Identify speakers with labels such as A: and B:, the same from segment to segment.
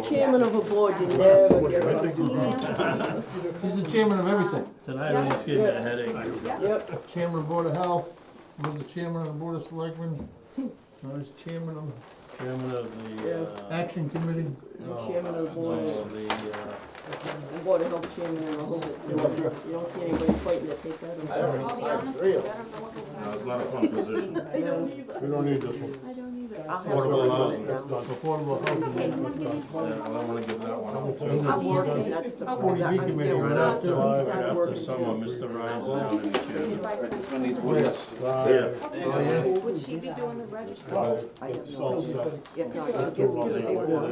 A: chairman of a board, you never get it right.
B: He's the chairman of everything,
C: Tonight, I just gave me a headache.
A: Yep,
B: chairman of board of health, was the chairman of the board of selectmen, now he's chairman of
C: Chairman of the, uh,
B: action committee.
C: no,
A: chairman of the board.
C: no, the, uh,
A: the board of health chairman and the whole, you don't, you don't see anybody fighting to take that. I don't
D: I'll be honest, I don't know what the
E: No, it's
D: last.
E: not a fun position.
A: I don't either.
F: We don't need this one.
D: I don't either.
A: I'll have
E: Affordable
A: to-
E: housing,
F: That's done.
B: Affordable
D: It's
B: housing.
D: okay, come on, give me.
E: Yeah, I don't wanna give that one up too.
D: I'll be
A: Working,
D: okay.
A: that's the.
B: Forty B committee
E: Right
B: went out
E: after,
B: too.
E: right after summer, Mr. Ryan's down in the chair.
D: This one
B: Yes,
F: Five,
B: oh
D: Would she be doing the registry?
F: five, that's all set.
A: If not, just give me the paperwork.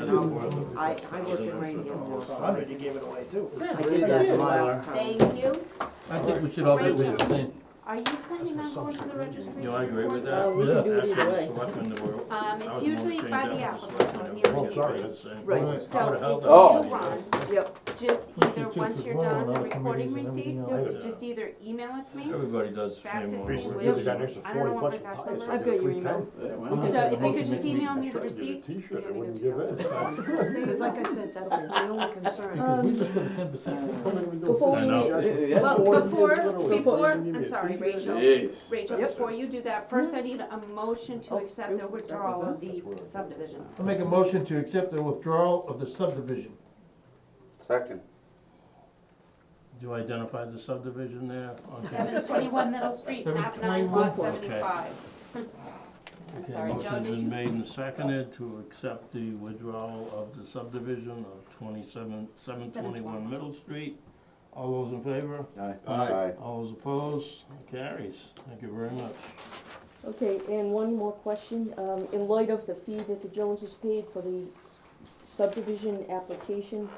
A: I, I work in rain now.
G: Hundred, you gave it away too.
A: I did that the last time.
D: Thank you.
B: yeah, I think we should all get rid of the same.
D: Are you planning on going to the registry?
E: You know, I agree with that.
A: Uh, we can do it
E: Actually,
A: either
E: the
A: way.
E: selectmen that were-
D: Um,
E: I
D: it's
E: was more
D: usually
E: chained
D: by
E: down
D: the
E: as
D: applicant
E: selectmen
D: on
E: that were
D: here.
E: just the same.
A: Right.
E: I
D: So
E: would've held
D: if
E: that
D: you
E: one
D: run,
E: years.
A: Yep,
D: just
B: We should
D: either,
B: check
D: once
B: with
D: you're
B: Ron
D: done,
B: on
D: the
B: our
D: recording
B: committees and
D: receipt,
B: everything
E: else.
D: just either email it to me,
E: Everybody does
D: fax it
E: frame
D: to me
E: over.
F: They got an
D: with,
F: extra
D: I don't know
F: 40
D: what my
F: bucks
D: back
F: of tires.
D: number
A: I've got your
F: Free
A: email.
D: so if you could just
B: Motion made.
D: email me the
F: Tried to get
D: receipt.
F: a T-shirt, they
D: you
F: wouldn't
D: don't even
F: give in.
A: because like I said, that's my only concern.
B: Because we just got a ten percent.
A: Before
E: I
A: we
E: know.
A: leave,
D: Well, before,
F: Literally.
D: before,
F: Give me a
D: I'm sorry,
F: T-shirt.
D: Rachel,
G: Jeez.
D: Rachel,
A: Yep.
D: before you do that, first I need a motion to
A: Oh,
D: accept the
A: yep.
D: withdrawal of the subdivision.
B: I'll make a motion to accept the withdrawal of the subdivision.
G: Second.
C: do you identify the subdivision there? Okay.
D: Seven twenty-one Middle Street, map nine, lot
B: 721.
D: seventy-five. I'm
C: Okay,
D: sorry, Joe,
C: Motion's
D: did
C: been
D: you?
C: made and seconded to accept the withdrawal of the subdivision of twenty-seven, seven twenty-one Middle Street. All those in favor?
G: Aye.
C: All those opposed? Carries. Thank you very much.
H: Okay, and one more question, um, in light of the fee that the Joneses paid for the subdivision application,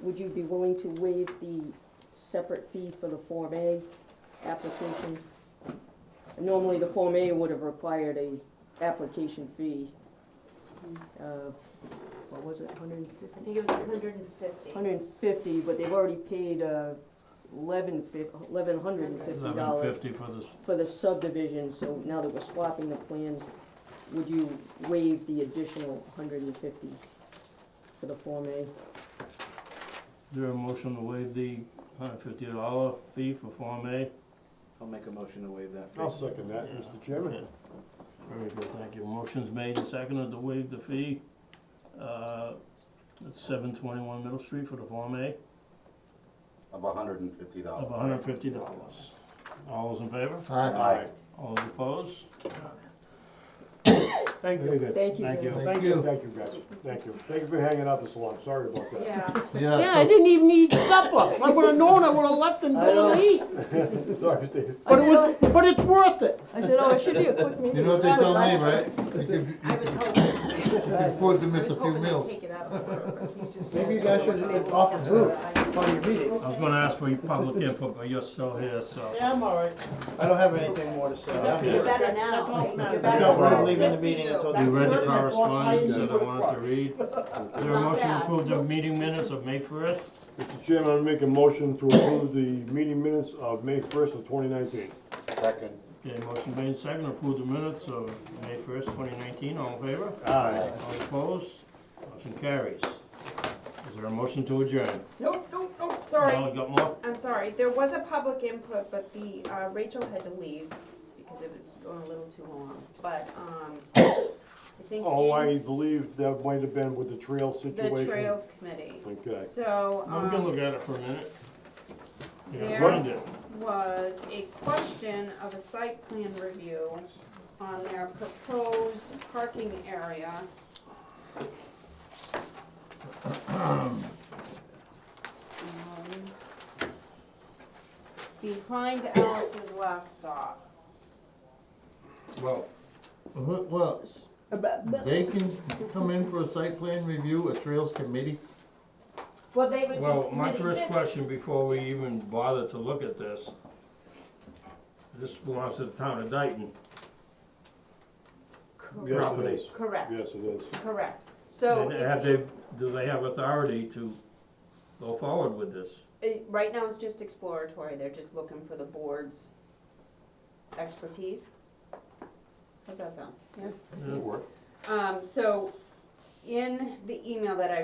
H: would you be willing to waive the separate fee for the Form A application? Normally, the Form A would have required a application fee of, what was it, hundred and fifty?
D: I think it was hundred and fifty.
H: Hundred and fifty, but they've already paid, uh, eleven fif- eleven hundred and fifty dollars
C: Eleven fifty for this,
H: for the subdivision, so now that we're swapping the plans, would you waive the additional hundred and fifty for the Form A?
C: is there a motion to waive the hundred fifty dollar fee for Form A?
G: I'll make a motion to waive that
F: I'll second that, Mr. Chairman.
C: Very good, thank you. Motion's made and seconded to waive the fee. Uh, It's seven twenty-one Middle Street for the Form A
G: Of a hundred and fifty
C: of
G: dollars.
C: hundred and fifty dollars. All those in favor?
B: Aye.
G: Aye.
C: All those opposed?
F: Thank you.
H: Thank you.
C: Thank you.
F: Thank you, thank you, guys. Thank you. Thank you for hanging out this long. Sorry about that.
D: Yeah,
B: Yeah,
A: yeah, I didn't even need supper. I would've known, I would've left and gone to eat.
F: Sorry, Steve.
A: But it
H: "Oh,
A: was, but it's worth it. I said, oh, it should be a quick meeting.
B: you know what they tell me, right? You can- you
D: I was hoping,
B: can afford to
D: I
B: miss
D: was
B: a few
D: hoping they'd
B: meals.
D: take it out of order. He's just-
G: Maybe you guys should offer food for your meetings.
C: I was gonna ask for your public input, but you're still here, so.
A: Yeah, I'm all right.
G: I don't have anything more to say.
D: You're better now. You're
G: I
D: better
G: felt
D: now.
G: weird leaving the
D: Good
G: meeting
D: for you.
G: until.
C: You read the
A: Back to work, I thought
C: correspondence
A: I
C: that I wanted to read. Is there a
D: Not
C: motion to
D: bad.
C: approve the meeting minutes of May first?
F: Mr. Chairman, I'm making a motion to approve the meeting minutes of May first of twenty nineteen.
G: Second.
C: Okay, motion made and seconded, approve the minutes of May first, twenty nineteen, all in favor?
F: Aye.
C: All opposed? Motion carries. Is there a motion to adjourn?
D: Nope, nope, nope,
C: No,
D: sorry.
C: you got more?
D: I'm sorry, there was a public input, but the, uh, Rachel had to leave because it was going a little too long, but, um, I think
F: Oh,
D: in
F: I believe that might have been with the trail situation.
D: the Trails Committee.
F: Okay.
D: So,
C: I'm gonna
D: um,
C: look at it for a minute. You gotta
D: There.
C: find it.
D: was a question of a site plan review on their proposed parking area. Um, Behind Alice's last stop.
B: Well, wh- Uh-huh. well, they can come in for a site plan review, a trails committee.
D: Well, they would be
C: Well, my
D: submitting
C: first
D: this.
C: question, before we even bother to look at this, this belongs to the town of Dayton.
F: Yes, it
C: Property.
F: is.
D: Correct,
F: Yes, it is.
D: correct. So,
C: And
D: if
C: Have
D: you-
C: they, do they have authority to go forward with this?
D: it- right now it's just exploratory, they're just looking for the board's expertise. How's that sound? Yeah.
F: It worked.
D: Um, so, in the email that I